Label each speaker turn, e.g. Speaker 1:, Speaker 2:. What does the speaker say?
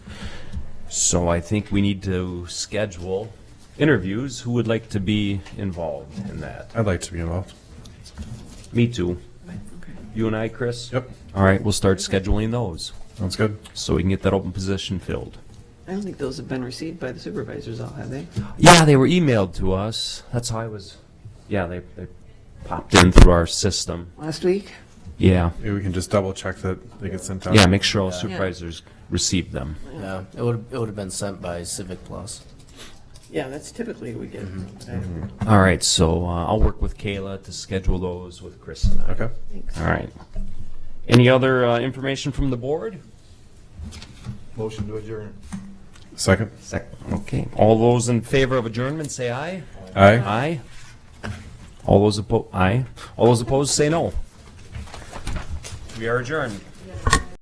Speaker 1: So I think we need to schedule interviews. Who would like to be involved in that?
Speaker 2: I'd like to be involved.
Speaker 1: Me too. You and I, Chris?
Speaker 2: Yep,
Speaker 1: All right, we'll start scheduling those
Speaker 2: sounds good.
Speaker 1: so we can get that open position filled.
Speaker 3: I don't think those have been received by the supervisors all, have they?
Speaker 1: Yeah, they were emailed to us. That's how I was. Yeah, they, they popped in through our system.
Speaker 3: Last week?
Speaker 1: Yeah.
Speaker 2: Maybe we can just double check that they get sent out.
Speaker 1: Yeah, make sure all supervisors receive them.
Speaker 4: Yeah, it would it would have been sent by Civic Plus.
Speaker 3: Yeah, that's typically we get.
Speaker 1: All right, so uh, I'll work with Kayla to schedule those with Chris and I.
Speaker 2: Okay.
Speaker 1: All right. Any other uh, information from the board?
Speaker 5: Motion to adjourn.
Speaker 2: Second.
Speaker 1: Second. Okay. All those in favor of adjournment, say aye.
Speaker 2: Aye.
Speaker 1: Aye. All those opposed, aye. All those opposed, say no. We are adjourned.